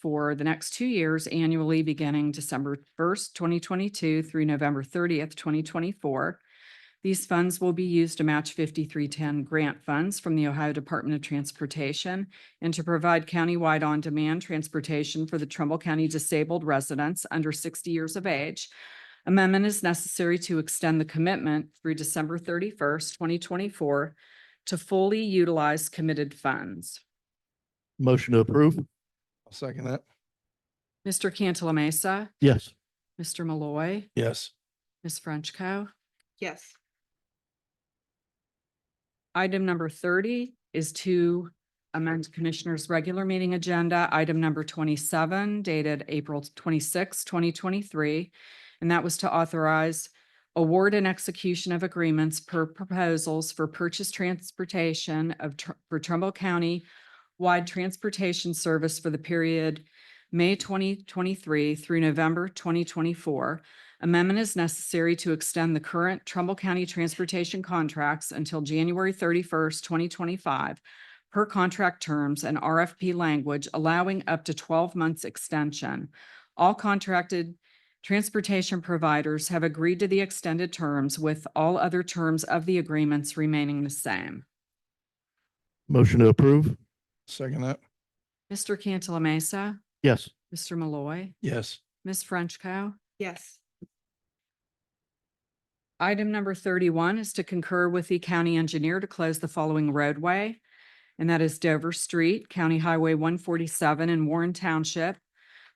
for the next two years annually, beginning December first, twenty twenty-two through November thirtieth, twenty twenty-four. These funds will be used to match fifty-three ten grant funds from the Ohio Department of Transportation and to provide countywide on-demand transportation for the Trumbull County disabled residents under sixty years of age. Amendment is necessary to extend the commitment through December thirty-first, twenty twenty-four to fully utilize committed funds. Motion to approve? I'll second that. Mr. Cantala Mesa, Yes. Mr. Malloy, Yes. Ms. Frenchco. yes, Item number thirty is to amend Commissioner's regular meeting agenda, item number twenty-seven dated April 26, twenty twenty-three. And that was to authorize award and execution of agreements per proposals for purchase transportation of, Tr- for Trumbull County wide transportation service for the period May twenty twenty-three through November twenty twenty-four. Amendment is necessary to extend the current Trumbull County transportation contracts until January thirty-first, twenty twenty-five per contract terms and RFP language allowing up to twelve months extension. All contracted transportation providers have agreed to the extended terms with all other terms of the agreements remaining the same. Motion to approve? Second that. Mr. Cantala Mesa, Yes. Mr. Malloy, Yes. Ms. Frenchco. yes, Item number thirty-one is to concur with the county engineer to close the following roadway. And that is Dover Street, County Highway one forty-seven in Warren Township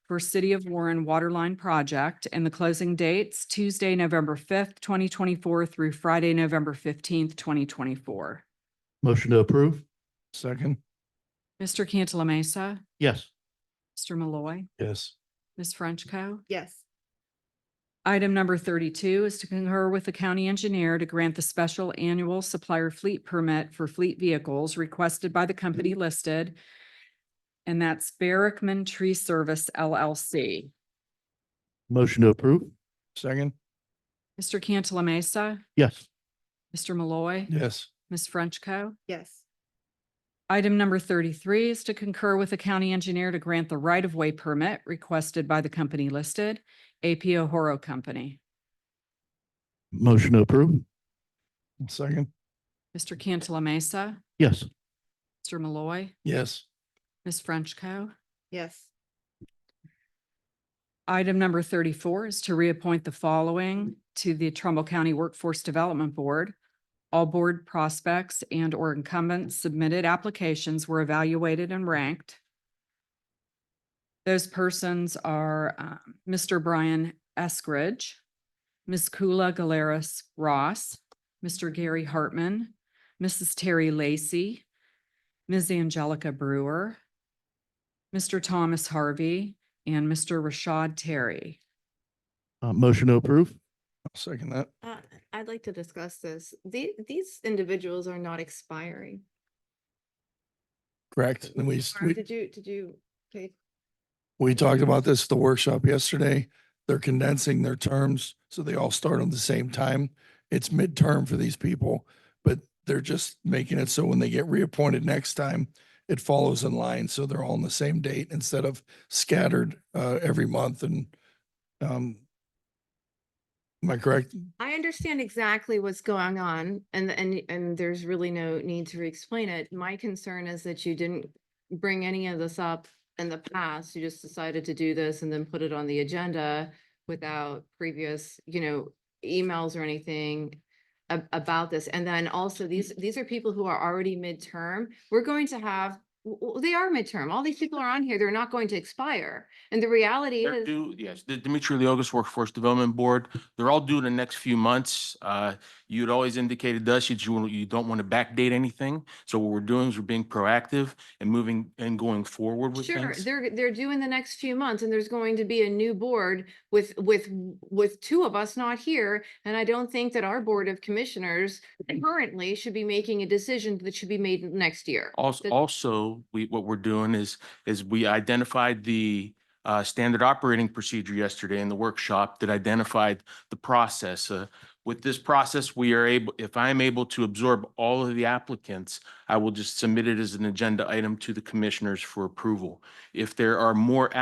for City of Warren Waterline Project and the closing dates Tuesday, November fifth, twenty twenty-four through Friday, November fifteenth, twenty twenty-four. Motion to approve? Second. Mr. Cantala Mesa, Yes. Mr. Malloy, Yes. Ms. Frenchco. yes, Item number thirty-two is to concur with the county engineer to grant the special annual supplier fleet permit for fleet vehicles requested by the company Mm-hmm. listed. And that's Barrickman Tree Service LLC. Motion to approve? Second. Mr. Cantala Mesa, Yes. Mr. Malloy, Yes. Ms. Frenchco. yes, Item number thirty-three is to concur with the county engineer to grant the right-of-way permit requested by the company listed, APO Horo Company. Motion to approve? Second. Mr. Cantala Mesa, Yes. Mr. Malloy, Yes. Ms. Frenchco. yes, Item number thirty-four is to reappoint the following to the Trumbull County Workforce Development Board. All board prospects and or incumbents submitted applications were evaluated and ranked. Those persons are um, Mr. Brian Eskridge, Ms. Kula Galeras Ross, Mr. Gary Hartman, Mrs. Terry Lacy, Ms. Angelica Brewer, Mr. Thomas Harvey, and Mr. Rashad Terry. Uh, motion to approve? I'll second that. uh, I'd like to discuss this, the, these individuals are not expiring. Correct. And we, Or we, Did you, did you, okay, we talked about this at the workshop yesterday. They're condensing their terms, so they all start on the same time. It's midterm for these people, but they're just making it so when they get reappointed next time, it follows in line, so they're all on the same date instead of scattered, uh, every month and, um, am I correct? I understand exactly what's going on and, and, and there's really no need to re-explain it. My concern is that you didn't bring any of this up in the past. You just decided to do this and then put it on the agenda without previous, you know, emails or anything a- about this. And then also these, these are people who are already midterm. We're going to have, w- w- they are midterm. All these people are on here. They're not going to expire. And the reality They're is. due, yes, the Dimitri Leogas Workforce Development Board, they're all due in the next few months. Uh, You'd always indicated to us that you, you don't want to backdate anything. So what we're doing is we're being proactive and moving and going forward with Sure, things. they're, they're due in the next few months and there's going to be a new board with, with, with two of us not here. And I don't think that our Board of Commissioners Mm. currently should be making a decision that should be made next year. Also, that- also, we, what we're doing is, is we identified the uh, standard operating procedure yesterday in the workshop that identified the process. Uh, With this process, we are able, if I am able to absorb all of the applicants, I will just submit it as an agenda item to the commissioners for approval. If there are more